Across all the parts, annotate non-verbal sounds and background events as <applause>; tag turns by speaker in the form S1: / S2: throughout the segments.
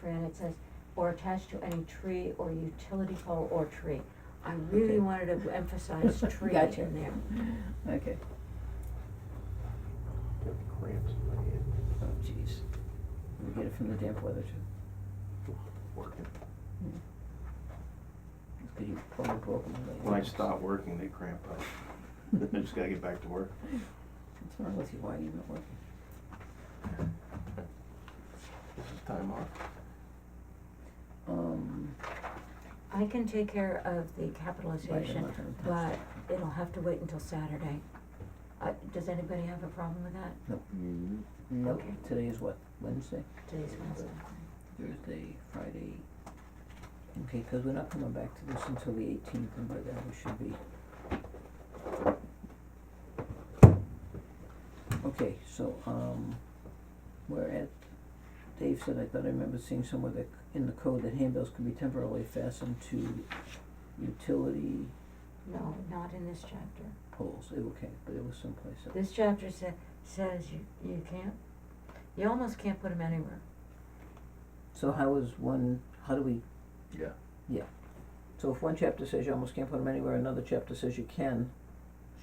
S1: Fran, it says, or attached to any tree or utility pole or tree. I really
S2: Okay.
S1: wanted to
S2: <laughs>
S1: emphasize tree
S2: Gotcha.
S1: in there.
S2: Okay,
S3: Got cramps in my hand,
S2: oh jeez, we get it from the damp weather too,
S3: working.
S2: it's good you probably broke them lately.
S3: When I
S2: <laughs>
S3: stop working, they cramp <laughs> up. I just gotta get back to work.
S2: What's wrong with you, why are you not working?
S3: This is time off.
S2: Um,
S1: I can take care of the capitalization,
S2: not gonna touch
S1: but
S2: that.
S1: it'll have to wait until Saturday. Uh, does anybody have a problem with that?
S4: Mm-hmm.
S2: no,
S1: Okay.
S2: today is what, Wednesday,
S1: Today's Wednesday.
S2: Thursday, Friday? Okay, cause we're not coming back to this until the eighteenth, and by then we should be. Okay, so, um, we're at, Dave said, I thought I remember seeing somewhere that, c- in the code that handbills can be temporarily fastened to utility
S1: No, not in this chapter.
S2: poles, It- okay, but it was someplace else.
S1: This chapter sa- says you, you can't, you almost can't put them anywhere.
S2: So how is one, how do we,
S3: Yeah.
S2: so if one chapter says you almost can't put them anywhere, another chapter says you can,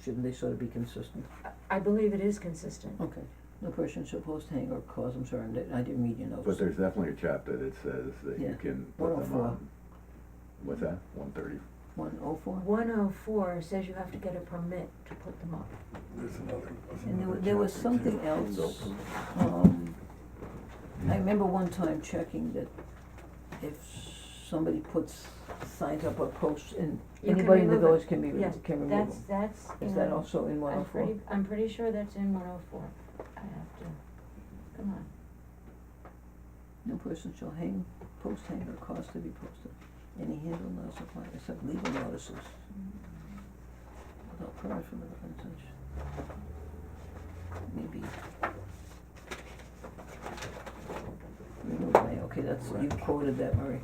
S2: shouldn't they sort of be consistent?
S1: I- I believe it is consistent.
S2: Okay, no person shall post, hang, or cause, I'm sorry, I didn't- I didn't read your notes.
S4: But there's definitely a chapter that says that
S2: Yeah.
S4: you can put them
S2: 104.
S4: on, what's that, one thirty?
S2: One oh four?
S1: One oh four says you have to get a permit to put them up.
S4: There's another,
S2: And there wa- there was something else, um, I remember one time checking that if somebody puts signs up or posts and
S1: You can
S2: anybody in the
S1: remove it.
S2: village can be, re-
S1: Yes,
S2: can remove them.
S1: That's, that's in.
S2: Is that also in one oh
S1: I'm
S2: four?
S1: pretty, I'm pretty sure that's in one oh four. I have to, come on.
S2: No person shall hang, post hang or cause to be posted any handle not supplied except legal notices without permit from the and such. Maybe. Remove may, okay, that's, you
S3: Right.
S2: quoted that, Murray.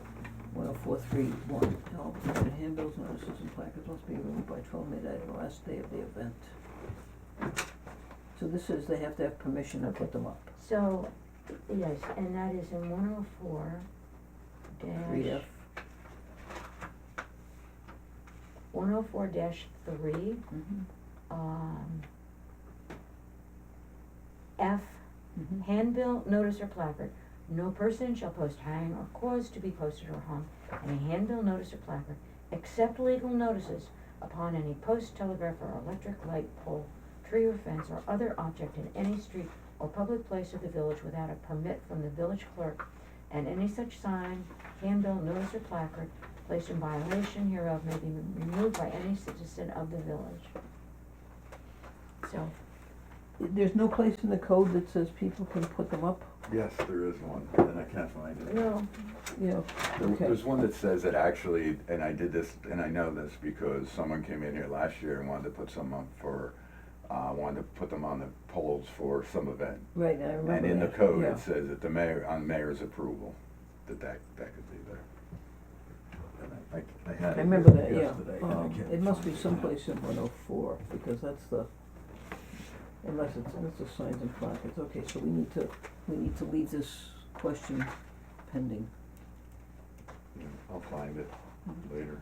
S2: One oh four three one, all permitted handbills, notices and placards must be removed by twelve midnight on the last day of the event. So this is, they have to have permission to put them up.
S1: So, yes, and that is in one oh four
S2: Read
S1: dash,
S2: F.
S1: one oh four dash three,
S2: Mhm.
S1: um, F,
S2: Mhm.
S1: handbill, notice or placard. No person shall post hang or cause to be posted or hung any handbill, notice or placard, except legal notices upon any post, telegraph, or electric light pole, tree or fence, or other object in any street or public place of the village without a permit from the village clerk, and any such sign, handbill, notice, or placard placed in violation hereof may be removed by any citizen of the village. So,
S2: There's no place in the code that says people can put them up,
S4: Yes, there is one, and I can't find it.
S1: no,
S2: you know,
S4: There-
S2: Okay.
S4: There's one that says that actually, and I did this, and I know this because someone came in here last year and wanted to put some up for, uh, wanted to put them on the poles for some event.
S2: right, I remember
S4: And in the
S2: that,
S4: code,
S2: yeah.
S4: it says that the mayor, on mayor's approval, that that, that could be there. And I- I, I had
S2: I
S4: it
S2: remember that, yeah,
S4: yesterday, and I
S2: um,
S4: can't
S2: it must be
S4: find
S2: someplace in one oh four, because that's the, unless it's, that's the signs and placards, okay, so we need to, we need to leave this question pending.
S4: I'll find it later.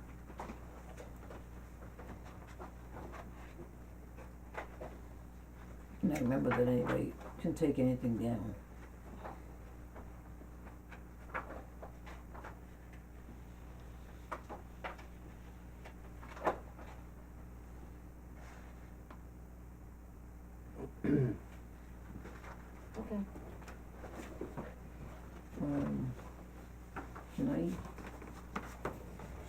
S2: And I remember that anybody can take anything down.
S1: okay.
S2: Um, can I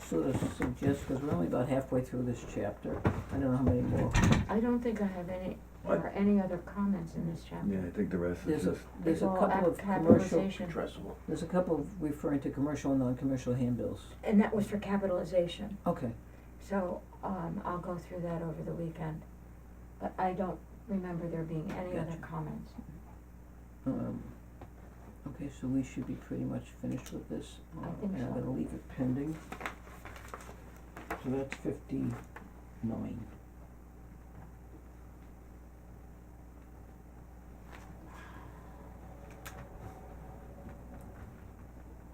S2: sort of suggest, because we're only about halfway through this chapter, I don't know how many more
S1: I don't think I have any,
S4: What?
S1: or any other comments in this chapter.
S4: Yeah, I think the rest is
S2: There's a,
S4: just,
S2: there's a
S1: Well,
S2: couple
S1: ap-
S2: of commercial,
S1: capitalization.
S3: Addressable.
S2: there's a couple of referring to commercial and non-commercial handbills.
S1: And that was for capitalization,
S2: Okay,
S1: so, um, I'll go through that over the weekend. But I don't remember there being any other
S2: Gotcha.
S1: comments.
S2: um, okay, so we should be pretty much finished with this.
S1: I
S2: uh,
S1: think
S2: And I'm
S1: so.
S2: gonna leave it pending. So that's fifty-nine.